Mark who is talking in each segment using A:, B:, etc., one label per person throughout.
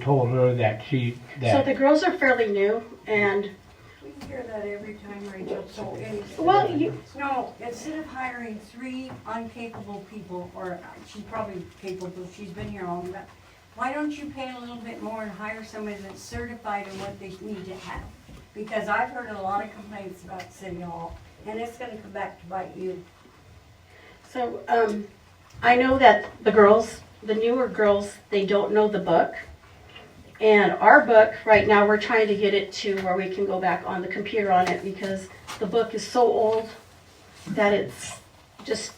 A: told her that she,
B: So the
A: that,
B: girls are fairly new and,
C: We hear that every time, Rachel, so it's.
B: well, you,
C: No, instead of hiring three uncapable people, or uh, she's probably capable, she's been here all, but why don't you pay a little bit more and hire somebody that's certified in what they need to have? Because I've heard a lot of complaints about City Hall, and it's gonna come back to bite you.
B: so, um, I know that the girls, the newer girls, they don't know the book. And our book, right now, we're trying to get it to where we can go back on the computer on it because the book is so old that it's just,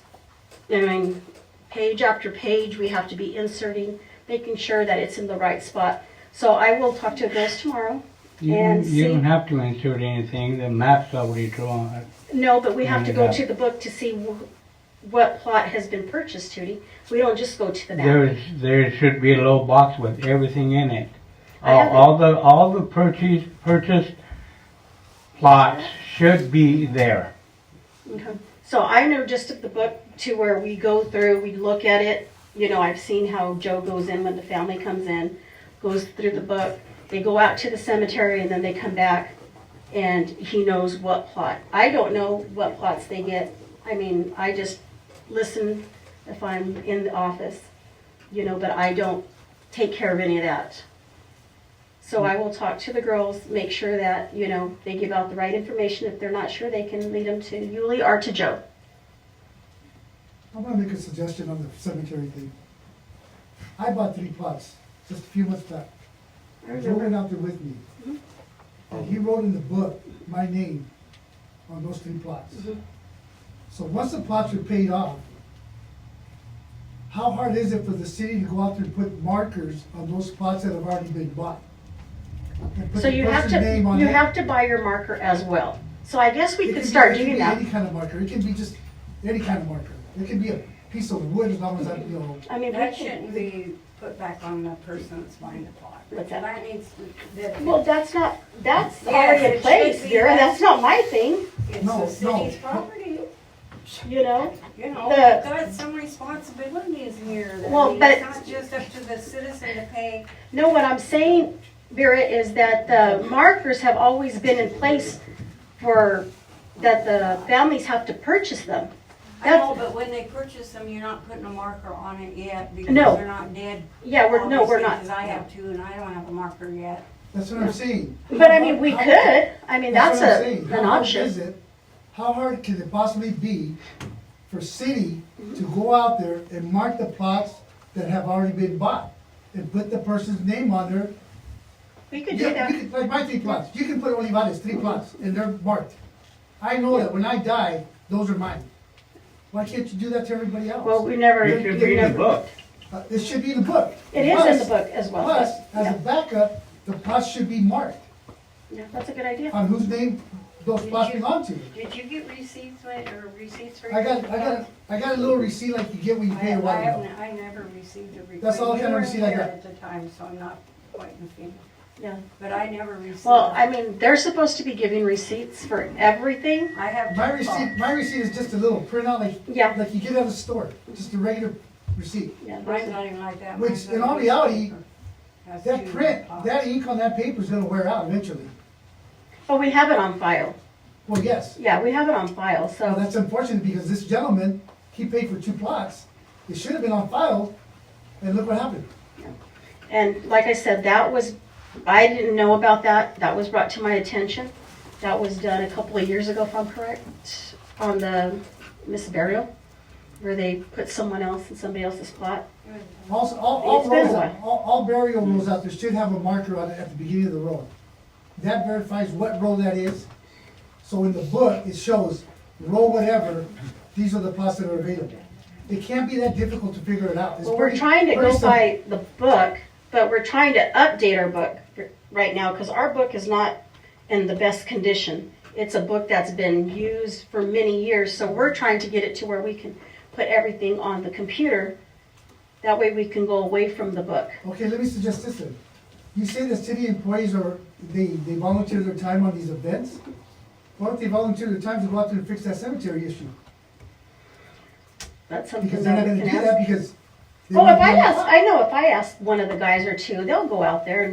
B: I mean, page after page, we have to be inserting, making sure that it's in the right spot. So I will talk to the girls tomorrow.
A: you
B: and
A: you
B: see-
A: don't have to insert anything, the map's already drawn.
B: No, but we have to go
A: Yeah.
B: to the book to see wh- what plot has been purchased, Tootie. We don't just go to the back.
A: There's, there should be a little box with everything in it.
B: I
A: All,
B: have it.
A: all the, all the purchase, purchase plots should be there.
B: Okay. So I know just of the book to where we go through, we look at it. You know, I've seen how Joe goes in when the family comes in, goes through the book. They go out to the cemetery and then they come back and he knows what plot. I don't know what plots they get. I mean, I just listen if I'm in the office, you know, but I don't take care of any of that. So I will talk to the girls, make sure that, you know, they give out the right information. If they're not sure, they can lead them to Yuli or to Joe.
D: I'm gonna make a suggestion on the cemetery thing. I bought three plots just a few months back. Joe went out there with me. And he wrote in the book my name on those three plots. So once the plots are paid off, how hard is it for the city to go out there and put markers on those plots that have already been bought? And put
B: So
D: the
B: you have
D: person's
B: to,
D: name on
B: you
D: it?
B: have to buy your marker as well. So I guess
D: It
B: we
D: can
B: could
D: be-
B: start doing
D: It can be any
B: that.
D: kind of marker, it can be just any kind of marker. It can be a piece of wood as long as I, you know,
B: I mean, we
C: That shouldn't
B: should,
C: be put back on the person that's buying the plot.
B: What's that?
C: That needs, to- that,
B: well, that's not, that's
C: Yes,
B: already
C: it
B: in
C: should
B: place,
C: be.
B: Vera. That's not my thing,
C: it's
D: No,
C: the
D: no.
C: city's property.
B: you know?
C: You know,
B: The-
C: we've got some responsibilities here. I
B: Well,
C: mean,
B: but-
C: It's not just up to the citizen to pay.
B: No, what I'm saying, Vera, is that the markers have always been in place for, that the families have to purchase them.
C: I know,
B: That's-
C: but when they purchase them, you're not putting a marker on it yet because
B: No.
C: they're not dead.
B: Yeah, we're, no, we're not.
C: Because I have two and I don't have a marker yet.
D: that's what I'm saying.
B: But I mean, we
D: How-
B: could, I mean, that's
D: what I'm
B: a,
D: saying.
B: an
D: How hard is
B: option.
D: it- How hard can it possibly be for city
B: Mm-hmm.
D: to go out there and mark the plots that have already been bought? And put the person's name on there?
B: We could
D: Yeah,
B: do that.
D: you could- Like my three plots, you can put Olivares, three plots, and they're marked. I know that when I die, those are mine. Why can't you do that to everybody else?
B: Well, we never,
D: It should be
B: we
D: in the
B: never.
A: book.
D: Uh, It should be in the book.
B: It is in the
D: Plus-
B: book as well.
D: Plus, as
B: Yeah.
D: a backup, the plots should be marked
B: Yeah, That's a good idea.
D: on whose name those plots belong to.
C: Did you get receipts when- or receipts for?
D: I got,
C: your
D: I got, I got a little receipt like you get when you
C: I
D: pay a
C: have, I
D: water bill.
C: haven't, I never received a receipt.
D: That's all kind of receipt I
C: You
D: got.
C: weren't here at the time, so I'm not quite in the field.
B: Yeah.
C: But I never received.
B: Well, I
C: it.
B: mean, they're supposed to be giving receipts for everything.
C: I have.
D: My
C: two
D: receipt,
C: plots.
D: my receipt is just a little printout like,
B: Yeah.
D: like you get at a store, just a regular receipt.
B: Yeah, those
C: Mine's
B: are-
C: not even like that.
D: Which,
C: Mine's
D: in
C: not
D: all
C: even
D: reality,
C: paper. Has
D: That
C: two
D: print,
C: pockets.
D: that ink on that paper is gonna wear out eventually.
B: But we have it on file.
D: Well, yes,
B: Yeah, we have it on file, so,
D: Now, that's unfortunate because this gentleman, he paid for two plots. It should have been on file, and look what happened.
B: and like I said, that was, I didn't know about that. That was brought to my attention. That was done a couple of years ago, if I'm correct, on the Miss Burial, where they put someone else in somebody else's plot.
D: Also, all, all
B: It's been
D: roads,
B: a while.
D: all, all burial rules out there should have a marker on it at the beginning of the road. That verifies what road that is. So in the book, it shows, row whatever, these are the plots that are available. It can't be that difficult to figure it out. It's
B: Well, we're
D: pretty-
B: trying to
D: pretty
B: go
D: simple.
B: by the book, but we're trying to update our book right now because our book is not in the best condition. It's a book that's been used for many years, so we're trying to get it to where we can put everything on the computer. That way we can go away from the book.
D: Okay, let me suggest this then. You say the city employees are, they, they volunteer their time on these events? Why don't they volunteer their time to go out there and fix that cemetery issue?
B: That's something
D: Because they're not
B: that we
D: gonna
B: can
D: do that
B: ask.
D: because They
B: Oh, if
D: went
B: I
D: down-
B: ask, I know if I ask one of the guys or two, they'll go out there and